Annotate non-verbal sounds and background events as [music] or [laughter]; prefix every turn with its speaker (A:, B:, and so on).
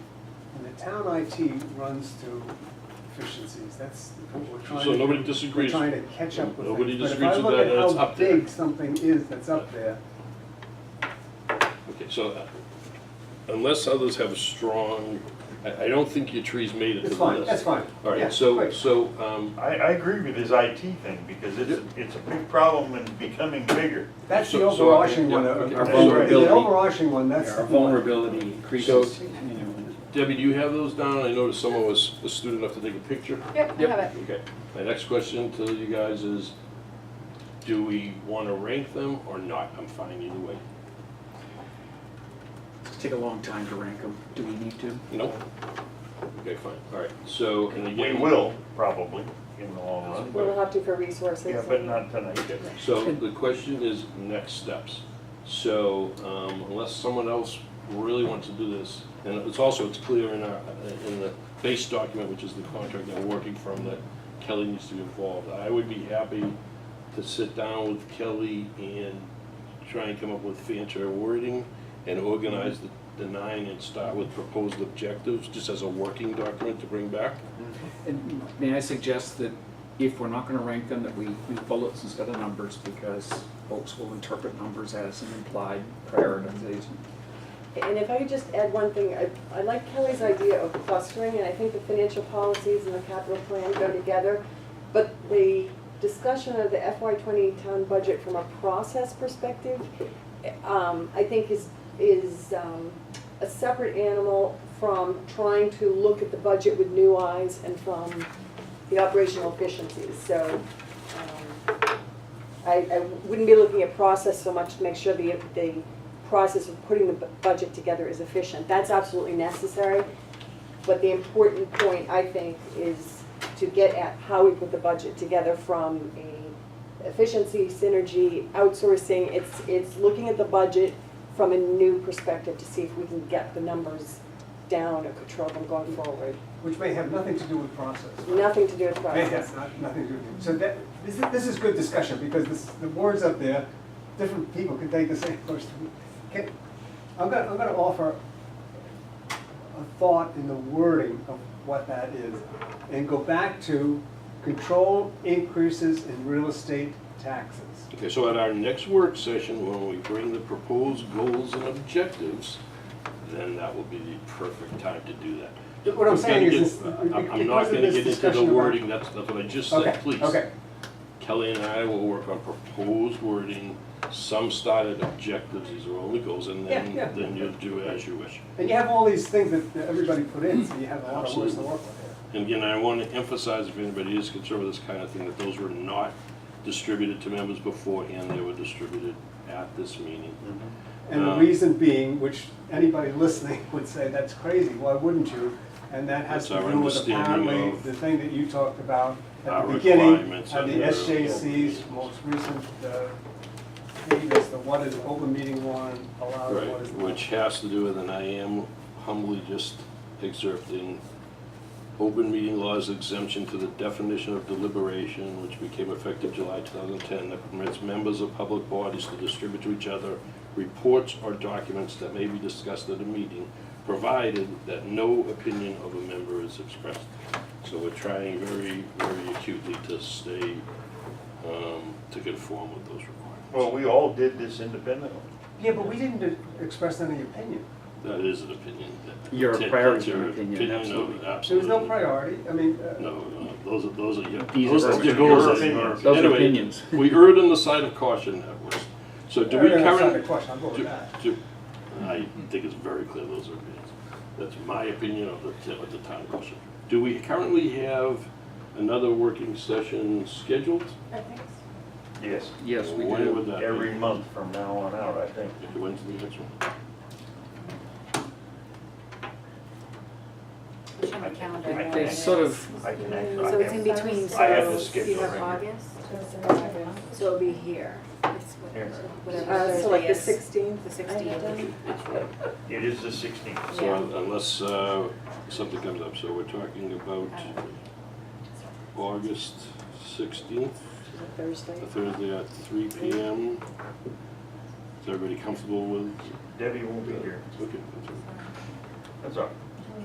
A: the town IT runs to efficiencies, that's what we're trying to.
B: So nobody
A: we're
B: disagrees.
A: trying to catch up with.
B: Nobody
A: things.
B: disagrees with that, and it's
A: But
B: up
A: if I look at
B: there.
A: how big something is that's up there,
B: Okay, so uh, unless others have a strong, I, I don't think your tree's made it to
A: it's
B: the
A: fine,
B: list.
A: that's fine.
B: All
A: Yeah,
B: right, so,
A: great.
B: so, um,
C: I, I agree with his IT thing, because it's, it's a big problem and becoming bigger.
A: That's the
B: so- so I-
A: overarching
B: yeah,
A: one,
B: okay.
A: our
C: That's
A: vulnerability,
D: right.
A: the overarching one, that's the
D: Our
A: one.
D: vulnerability increases.
B: So-
D: you know,
B: Debbie, do you have those down? I noticed someone was astute enough to take a picture.
E: Yep, I have it.
B: Okay, my next question to you guys is, do we want to rank them or not? I'm fine either way.
D: It's take a long time to rank them. Do we need to?
B: Nope. Okay, fine, all right, so, and
C: We
B: again.
C: will, probably, in the long run,
E: We'll have to for resources.
C: yeah, but
E: and-
C: not tonight.
B: Okay, so the question is next steps. So um, unless someone else really wants to do this, and it's also, it's clear in our, in the base document, which is the contract that we're working from, that Kelly needs to be involved. I would be happy to sit down with Kelly and try and come up with fancier wording and organize the the nine and start with proposed objectives, just as a working document to bring back.
D: And may I suggest that if we're not gonna rank them, that we use bullets instead of numbers because folks will interpret numbers as an implied prioritization.
E: And if I could just add one thing, I, I like Kelly's idea of clustering, and I think the financial policies and the capital plan go together. But the discussion of the FY twenty town budget from a process perspective, um, I think is, is, um, a separate animal from trying to look at the budget with new eyes and from the operational efficiencies, so, um, I, I wouldn't be looking at process so much to make sure the, the process of putting the bu- budget together is efficient. That's absolutely necessary, but the important point, I think, is to get at how we put the budget together from a efficiency, synergy, outsourcing. It's, it's looking at the budget from a new perspective to see if we can get the numbers down or control them going forward.
A: Which may have nothing to do with process.
E: Nothing to do with
A: May
E: process.
A: have not, nothing to do with it. So that, this is, this is good discussion, because this, the words up there, different people could take the same question. Can, I'm gonna, I'm gonna offer a thought in the wording of what that is, and go back to control increases in real estate taxes.
B: Okay, so at our next work session, when we bring the proposed goals and objectives, then that will be the perfect time to do that.
A: What I'm
B: We've
A: saying
B: gotta
A: is
B: get-
A: this- uh,
B: I'm- I'm
A: because
B: not
A: of
B: gonna
A: this
B: get into
A: discussion
B: the
A: about-
B: wording, that's, that's what I just
A: Okay,
B: said, please.
A: Okay,
B: Kelly and I will work on proposed wording, some started objectives, these are only goals, and then,
A: Yeah, yeah.
B: then you'll do as you wish.
A: and you have all these things that that everybody put in, so you have a lot of words to
B: Absolutely.
A: work with
B: And again, I want to emphasize, if anybody is concerned with this kind of thing, that those were not distributed to members beforehand, they were distributed at this meeting.
A: here. And the
B: Um,
A: reason being, which anybody listening would say, that's crazy, why wouldn't you? And that has to
B: That's our
A: do with
B: understanding
A: apparently
B: of
A: the thing that you talked about at
B: our
A: the beginning,
B: requirements
A: at the
B: under-
A: SJC's most recent, uh, thing is the what is open meeting law and allowed,
B: Right,
A: what is not.
B: which has to do with, and I am humbly just excerpting, open meeting law's exemption to the definition of deliberation, which became effective July 2010, that permits members of public bodies to distribute to each other reports or documents that may be discussed at a meeting, provided that no opinion of a member is expressed. So we're trying very, very acutely to stay, um, to conform with those requirements.
C: Well, we all did this independently.
A: Yeah, but we didn't express any opinion.
B: That is an opinion. that-
D: Your
B: that-
D: priorities
B: that's your
D: are opinion,
B: of-
D: absolutely.
A: There was no
B: absolutely.
A: priority, I mean, uh,
B: No, no, those are, those are, your-
D: These
B: those
D: are
B: are your
D: opinions.
B: goals.
C: Your opinions.
D: Those are
B: Anyway,
D: opinions.
B: [laughs] We erred on the side of caution at worst. So do we
A: Erred on the side
B: current?
A: of caution, I'll go with
B: do-
A: that.
B: do- I think it's very clear those are opinions. That's my opinion of the, t- of the town question. Do we currently have another working session scheduled?
C: Yes,
D: Yes, we
B: When
D: do.
B: would that be?
C: every month from now on out, I think.
B: Okay, When's the next one?
F: Push on the calendar.
C: I
F: right?
C: think
D: They sort of,
C: I can actually.
F: So it's in between,
C: I have the
F: so you
C: schedule
F: have
C: right here.
F: August, so it'll be here. It's what-
C: Here.
F: Whatever
E: Uh, so like
F: Thursday
E: the
F: is.
E: sixteenth?
F: The 16th.
B: That's fine.
C: It is the sixteenth.
B: So un- unless uh, something comes up, so we're talking about August 16th,
E: Thursday.
B: a Thursday at 3 PM. Is everybody comfortable with?
C: Debbie won't be here.
B: Okay, that's all.
C: That's all. right.